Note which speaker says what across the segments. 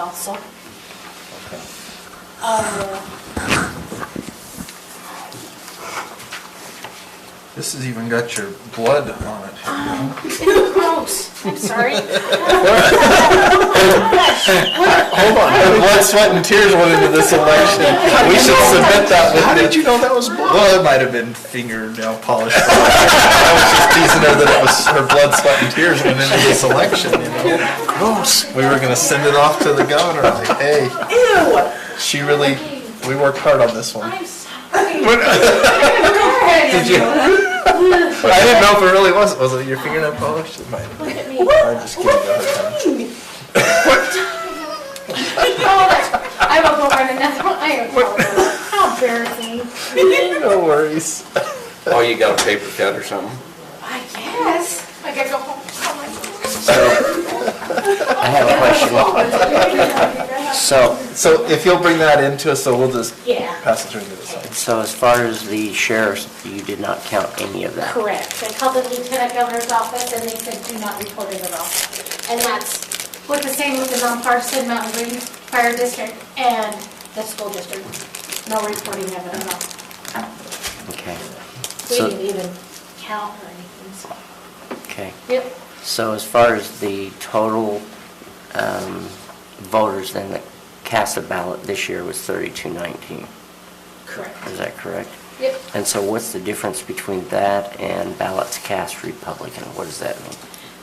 Speaker 1: council.
Speaker 2: Okay.
Speaker 1: Uh,
Speaker 2: This has even got your blood on it.
Speaker 1: um, Gross, I'm sorry.
Speaker 3: Hold on, the blood, sweat, and tears went into this election. We should submit that with
Speaker 2: How did
Speaker 3: the,
Speaker 2: you know that was blood? Well, it might have been fingernail polish. I was just teasing her that it was her blood, sweat, and tears went into this election, you know? Gross. We were gonna send it off to the governor, like, hey,
Speaker 1: Ew,
Speaker 2: she really, we worked hard on this one.
Speaker 1: I'm sorry.
Speaker 2: Did you? I didn't know if it really was, was it your fingernail polish? It might have been.
Speaker 1: Look at me.
Speaker 2: I'm just kidding.
Speaker 1: What do you mean? Oh, I will go find another one, I apologize. How embarrassing.
Speaker 2: No worries.
Speaker 3: oh, you got a paper cut or something?
Speaker 1: I guess, I gotta go home. Oh,
Speaker 4: So, I have a question.
Speaker 1: my God.
Speaker 4: So,
Speaker 2: So if you'll bring that into us, so we'll just
Speaker 1: Yeah,
Speaker 2: pass it through to the side.
Speaker 4: so as far as the sheriff's, you did not count any of that?
Speaker 1: correct. I called the lieutenant governor's office and they said, do not report it at all. And that's with the same with the non-partisan Mountain Green Fire District and the school district. No reporting of it at all.
Speaker 4: Okay,
Speaker 1: We
Speaker 4: So-
Speaker 1: didn't even count or anything, so.
Speaker 4: okay.
Speaker 1: Yep,
Speaker 4: So as far as the total um, voters then that cast a ballot this year was 3219, is
Speaker 1: correct.
Speaker 4: that correct?
Speaker 1: Yep.
Speaker 4: And so what's the difference between that and ballots cast Republican? What does that mean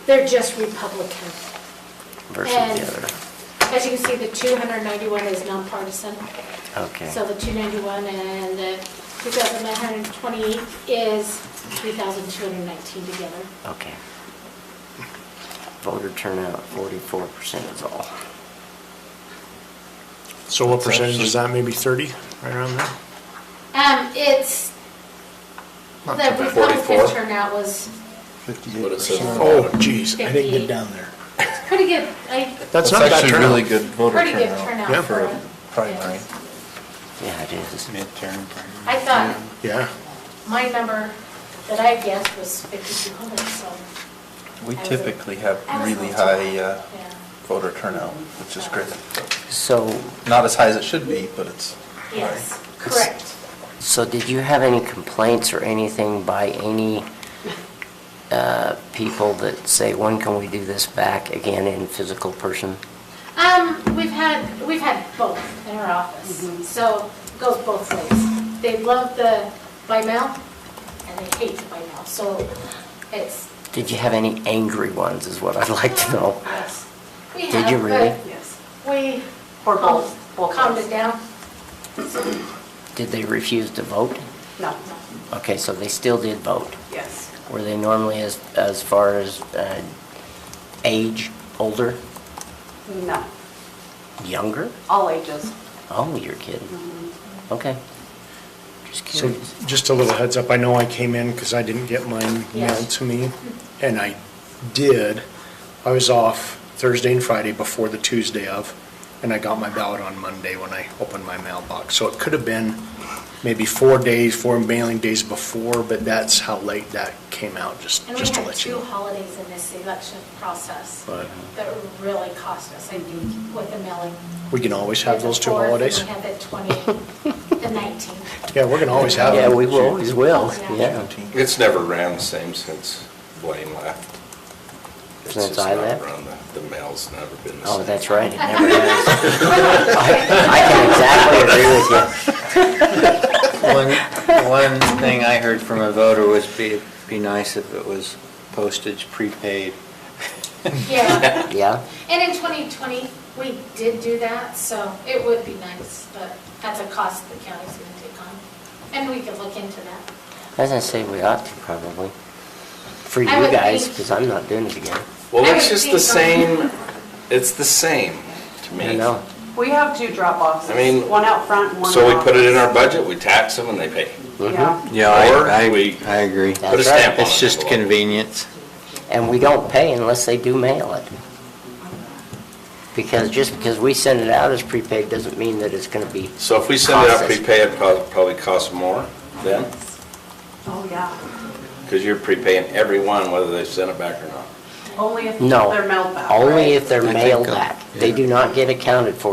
Speaker 1: They're just Republican.
Speaker 4: versus
Speaker 1: And-
Speaker 4: the
Speaker 1: As you can see, the 291 is nonpartisan.
Speaker 4: other? Okay.
Speaker 1: So the 291 and the 2,128 is 3,219 together.
Speaker 4: Okay. Voter turnout, 44% is all.
Speaker 5: So what percentage is that, maybe 30, right around there?
Speaker 1: Um, it's,
Speaker 2: Not
Speaker 1: the
Speaker 2: too bad.
Speaker 1: Republican
Speaker 3: 44.
Speaker 1: turnout was
Speaker 2: Fifty-eight
Speaker 3: What it says.
Speaker 2: percent.
Speaker 5: Oh, geez, I didn't
Speaker 1: 58.
Speaker 5: get down there.
Speaker 1: It's pretty good, I,
Speaker 5: That's not a bad
Speaker 2: actually really
Speaker 5: turnout.
Speaker 2: good voter
Speaker 1: pretty good
Speaker 2: turnout.
Speaker 5: Yeah.
Speaker 1: turnout for
Speaker 2: For
Speaker 1: a
Speaker 2: a primary.
Speaker 4: Yeah, it is.
Speaker 3: Midterm.
Speaker 1: I thought
Speaker 5: Yeah,
Speaker 1: my number that I guessed was 5,200, so,
Speaker 2: We
Speaker 1: I was-
Speaker 2: typically have
Speaker 1: I was
Speaker 2: really
Speaker 1: not
Speaker 2: high
Speaker 1: too
Speaker 2: uh,
Speaker 1: bad. yeah,
Speaker 2: voter turnout, which is great.
Speaker 4: So,
Speaker 2: Not as high as it should be, but it's,
Speaker 1: yes, correct.
Speaker 4: so did you have any complaints or anything by any uh, people that say, when can we do this back again in physical person?
Speaker 1: Um, we've had, we've had both in our
Speaker 6: Mm-hmm.
Speaker 1: office, so it goes both ways. They love the by mail and they hate the by mail, so it's,
Speaker 4: Did you have any angry ones is what I'd like to know.
Speaker 1: yes. We
Speaker 4: Did
Speaker 1: have,
Speaker 4: you
Speaker 1: but
Speaker 4: really?
Speaker 6: Yes,
Speaker 1: We
Speaker 6: Or both, both
Speaker 1: calmed
Speaker 6: ways.
Speaker 1: it down.
Speaker 4: Did they refuse to vote?
Speaker 6: no,
Speaker 4: Okay, so they still did vote.
Speaker 6: yes.
Speaker 4: Were they normally as, as far as uh, age, older,
Speaker 6: No,
Speaker 4: younger?
Speaker 6: all ages.
Speaker 4: Oh, you're kidding. Okay. Just
Speaker 5: so
Speaker 4: curious.
Speaker 5: just a little heads up, I know I came in because I didn't get mine mailed
Speaker 1: Yes.
Speaker 5: to me, and I did. I was off Thursday and Friday before the Tuesday of, and I got my ballot on Monday when I opened my mailbox. So it could have been maybe four days, four mailing days before, but that's how late that came out, just,
Speaker 1: And we
Speaker 5: just to
Speaker 1: had
Speaker 5: let you
Speaker 1: two
Speaker 5: know.
Speaker 1: holidays in this election process
Speaker 5: But
Speaker 1: that really cost us, I think, with the mailing.
Speaker 5: we can always have those two
Speaker 1: The fourth,
Speaker 5: holidays.
Speaker 1: and We had the 20, the 19th.
Speaker 5: Yeah, we're gonna always have
Speaker 4: Yeah,
Speaker 5: them.
Speaker 4: we will, always will,
Speaker 1: Yeah.
Speaker 4: yeah.
Speaker 3: It's never ran the same since Blaine left. It's
Speaker 4: Since
Speaker 3: just
Speaker 4: I
Speaker 3: not
Speaker 4: left?
Speaker 3: run the- The mail's never been the same.
Speaker 4: Oh, that's right, it never has. I I can exactly agree with you.
Speaker 7: One, one thing I heard from a voter was be, be nice if it was postage prepaid.
Speaker 1: Yeah.
Speaker 4: Yeah,
Speaker 1: And in 2020, we did do that, so it would be nice, but that's a cost the county's going to take on. And we could look into that.
Speaker 4: as I say, we ought to probably, for you
Speaker 1: I would
Speaker 4: guys,
Speaker 1: think-
Speaker 4: because I'm not doing it again.
Speaker 3: Well,
Speaker 1: I
Speaker 3: it's
Speaker 1: would
Speaker 3: just
Speaker 1: think
Speaker 3: the
Speaker 1: so.
Speaker 3: same, it's the same to me.
Speaker 4: I know,
Speaker 6: We have two drop-offs,
Speaker 3: I mean,
Speaker 6: one out front and one out.
Speaker 3: So we put it in our budget, we tax them and they pay.
Speaker 6: Yeah,
Speaker 7: Yeah,
Speaker 3: Or
Speaker 7: I,
Speaker 3: we-
Speaker 7: I, I agree.
Speaker 4: Put a
Speaker 3: stamp on
Speaker 7: It's
Speaker 3: it.
Speaker 7: just convenience.
Speaker 4: and we don't pay unless they do mail it. Because just because we send it out as prepaid doesn't mean that it's gonna be,
Speaker 3: So if we send it out
Speaker 4: Costs us.
Speaker 3: prepaid, it prob- probably costs more then,
Speaker 6: oh, yeah.
Speaker 3: Mm-hmm. because you're prepaying everyone whether they send it back or not.
Speaker 6: Only if
Speaker 4: No.
Speaker 6: they're mailed back,
Speaker 4: Only
Speaker 6: right?
Speaker 4: if they're
Speaker 7: I think,
Speaker 4: mailed
Speaker 7: uh,
Speaker 4: back. They
Speaker 7: yeah.
Speaker 4: do not get accounted for